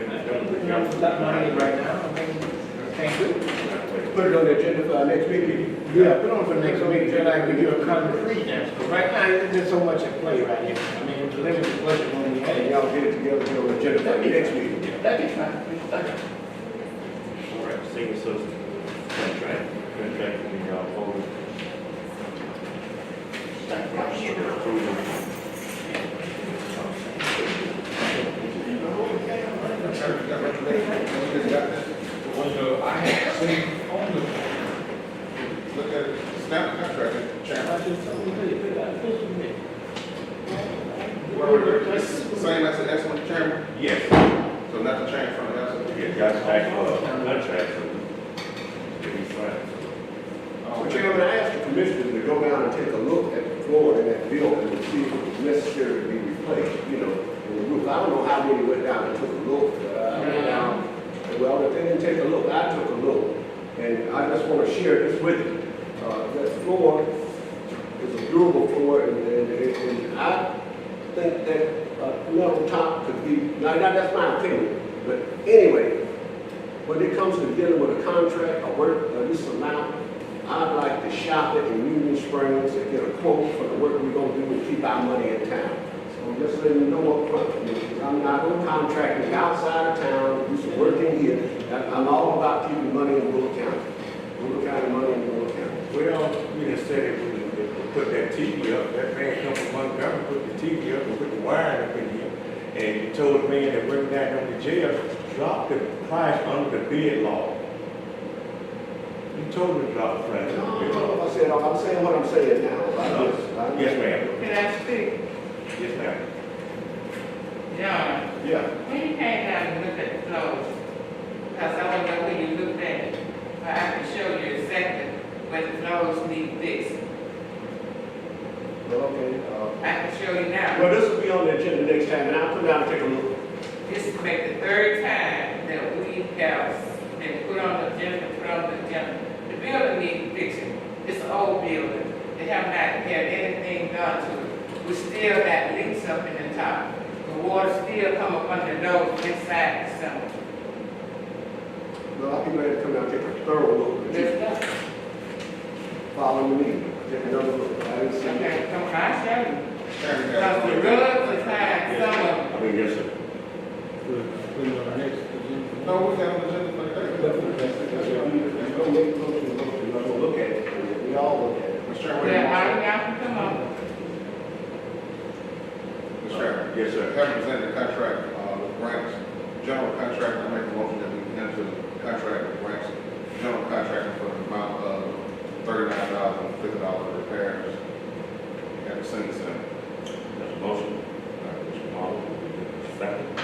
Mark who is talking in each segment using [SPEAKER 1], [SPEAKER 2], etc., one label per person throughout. [SPEAKER 1] you know, for that money right now, okay? Thank you. Put it on the agenda for our next meeting. Yeah, put it on for next meeting, then I give you a concrete answer. But Right now, there's so much at play right here. I mean, it's a limited budget when we
[SPEAKER 2] And
[SPEAKER 1] had.
[SPEAKER 2] y'all get it together, put it on the agenda for the next meeting.
[SPEAKER 1] That'd be fine. That'd be fine.
[SPEAKER 3] All right, single source contract, contract between y'all forward. Thank you for approval.
[SPEAKER 4] Well, I had seen on the, look at it, snap contract,
[SPEAKER 1] I
[SPEAKER 4] channel.
[SPEAKER 1] just told you, put it out, put some in.
[SPEAKER 4] Same as the S one chairman,
[SPEAKER 3] Yes,
[SPEAKER 4] so not to change from the S one.
[SPEAKER 3] yeah, got back, uh, contract for, to be signed.
[SPEAKER 4] Oh,
[SPEAKER 2] So Chairman, I asked the commissioners to go down and take a look at the floor in that building and see if it was necessary to be replaced, you know, in the roof. I don't know how many went down and took a look. Uh, I went down, well, if they didn't take a look, I took a look. And I just want to share this with you. Uh, That floor is a durable floor and, and, and I think that uh, level top could be, now, now that's my opinion. But anyway, when it comes to dealing with a contract, a work, uh, this amount, I'd like to shop it in Union Springs and get a quote for the work we're gonna do and keep our money in town. So just let me know upfront, because I'm not gonna contract it outside of town, do some work in here. I- I'm all about keeping money in Will County. Will County money in Will County.
[SPEAKER 5] Well, we just said if we would put that TV up, that man come from Montgomery, put the TV up and put the wiring up in here. And he told the man that bring that on the jail, drop the price under the bid law. You told him to drop the price under
[SPEAKER 2] No,
[SPEAKER 5] the
[SPEAKER 2] I
[SPEAKER 5] bid
[SPEAKER 2] don't know
[SPEAKER 5] law.
[SPEAKER 2] if I said, I'm saying what I'm saying now. about this. I-
[SPEAKER 5] Yes, ma'am.
[SPEAKER 6] Can I speak?
[SPEAKER 5] Yes, ma'am.
[SPEAKER 6] John,
[SPEAKER 2] Yeah,
[SPEAKER 6] when you came down and looked at the floors, because I don't know where you looked at it, but I can show you exactly where the floors need fixed.
[SPEAKER 2] well, okay, uh,
[SPEAKER 6] I can show you
[SPEAKER 2] well,
[SPEAKER 6] now.
[SPEAKER 2] this will be on the agenda next time, and I'll come down and take a look.
[SPEAKER 6] This is make the third time that we have been put on the agenda, put on the agenda. The building needs fixing. It's an old building. They have not had anything done to it. We still got leaks up in the top. The water still come up under the door inside the summer.
[SPEAKER 2] Well, I'll be glad to come out and take a thorough look, but you
[SPEAKER 6] There's nothing.
[SPEAKER 2] follow me, take another look, I didn't see it.
[SPEAKER 6] Okay, come on, I show you.
[SPEAKER 4] Chairman,
[SPEAKER 6] Because the rugs is high, some of them.
[SPEAKER 3] I mean, yes, sir.
[SPEAKER 1] Put it on our next agenda.
[SPEAKER 4] No, we got an agenda for the
[SPEAKER 2] Don't make a motion, motion, I'm gonna look at it, we all look at it.
[SPEAKER 4] Mr.
[SPEAKER 6] They're
[SPEAKER 4] Chairman,
[SPEAKER 6] hard enough to come up.
[SPEAKER 4] Mr. Chairman.
[SPEAKER 3] Yes, sir.
[SPEAKER 4] Having presented the contract, uh, with Ranks, general contractor, I make a motion that we enter the contract with Ranks, general contractor for the amount of thirty-nine thousand, fifty dollars repairs at the senior center.
[SPEAKER 3] That's a motion. All right, Mr. Marlowe, second.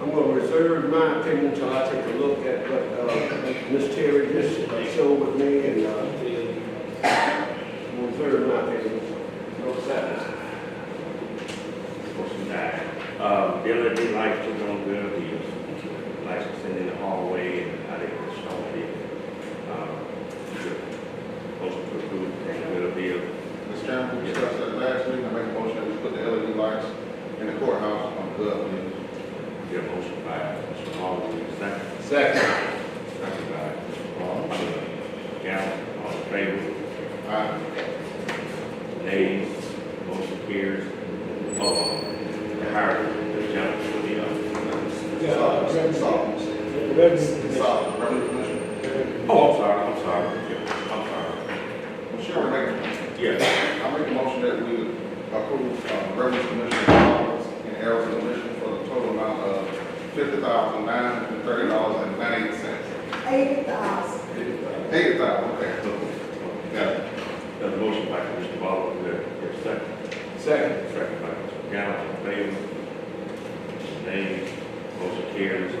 [SPEAKER 2] I'm gonna reserve my opinion until I take a look at what, uh, Ms. Terry just uh, showed with me, and, uh, I'm gonna reserve my opinion. No sadness.
[SPEAKER 3] Motion died. Uh, Billy, we like to go on good deals, licensing in the hallway and how they can show it. Um, Motion to approve, and good deal.
[SPEAKER 4] Mr. Chairman, we discussed that last week, I make a motion that we put the LED lights in the courthouse on Gov. News.
[SPEAKER 3] Your motion by Mr. Marlowe, second.
[SPEAKER 2] Second.
[SPEAKER 3] Second by Mr. Marlowe. Galvin, all in favor?
[SPEAKER 4] Aye.
[SPEAKER 3] Nays, motion carries. Uh, the hiring, the gentleman for the, uh,
[SPEAKER 4] Solid, solid, solid, Reverend Commissioner.
[SPEAKER 3] oh, I'm sorry, I'm sorry, Yeah, I'm sorry.
[SPEAKER 4] Well, sure, make,
[SPEAKER 3] Yes,
[SPEAKER 4] I make a motion that we approve, uh, Reverend Commissioner Collins and Errol's commission for the total amount of fifty thousand, nine hundred and thirty dollars and ninety-eight cents.
[SPEAKER 7] eighty thousand,
[SPEAKER 4] Eighty thousand, okay. Yeah.
[SPEAKER 3] the motion by Commissioner Marlowe, your second.
[SPEAKER 2] Second.
[SPEAKER 3] Second by Mr. Galvin, all in favor? Nays, motion carries.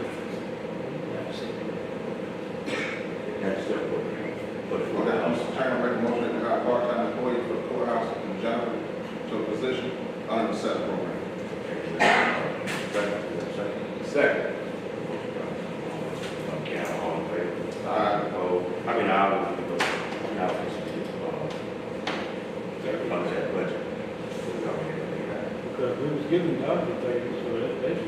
[SPEAKER 3] That's it. For the
[SPEAKER 4] Well, now,
[SPEAKER 3] courthouse.
[SPEAKER 4] Mr. Chairman, make a motion that we hire a part-time employee for the courthouse in general to a position under the set program.
[SPEAKER 3] Second.
[SPEAKER 2] Second.
[SPEAKER 3] Okay, all in favor?
[SPEAKER 4] Aye.
[SPEAKER 3] Oh, I mean, I was, I was, uh, about that uh, budget.
[SPEAKER 1] Because we was given the other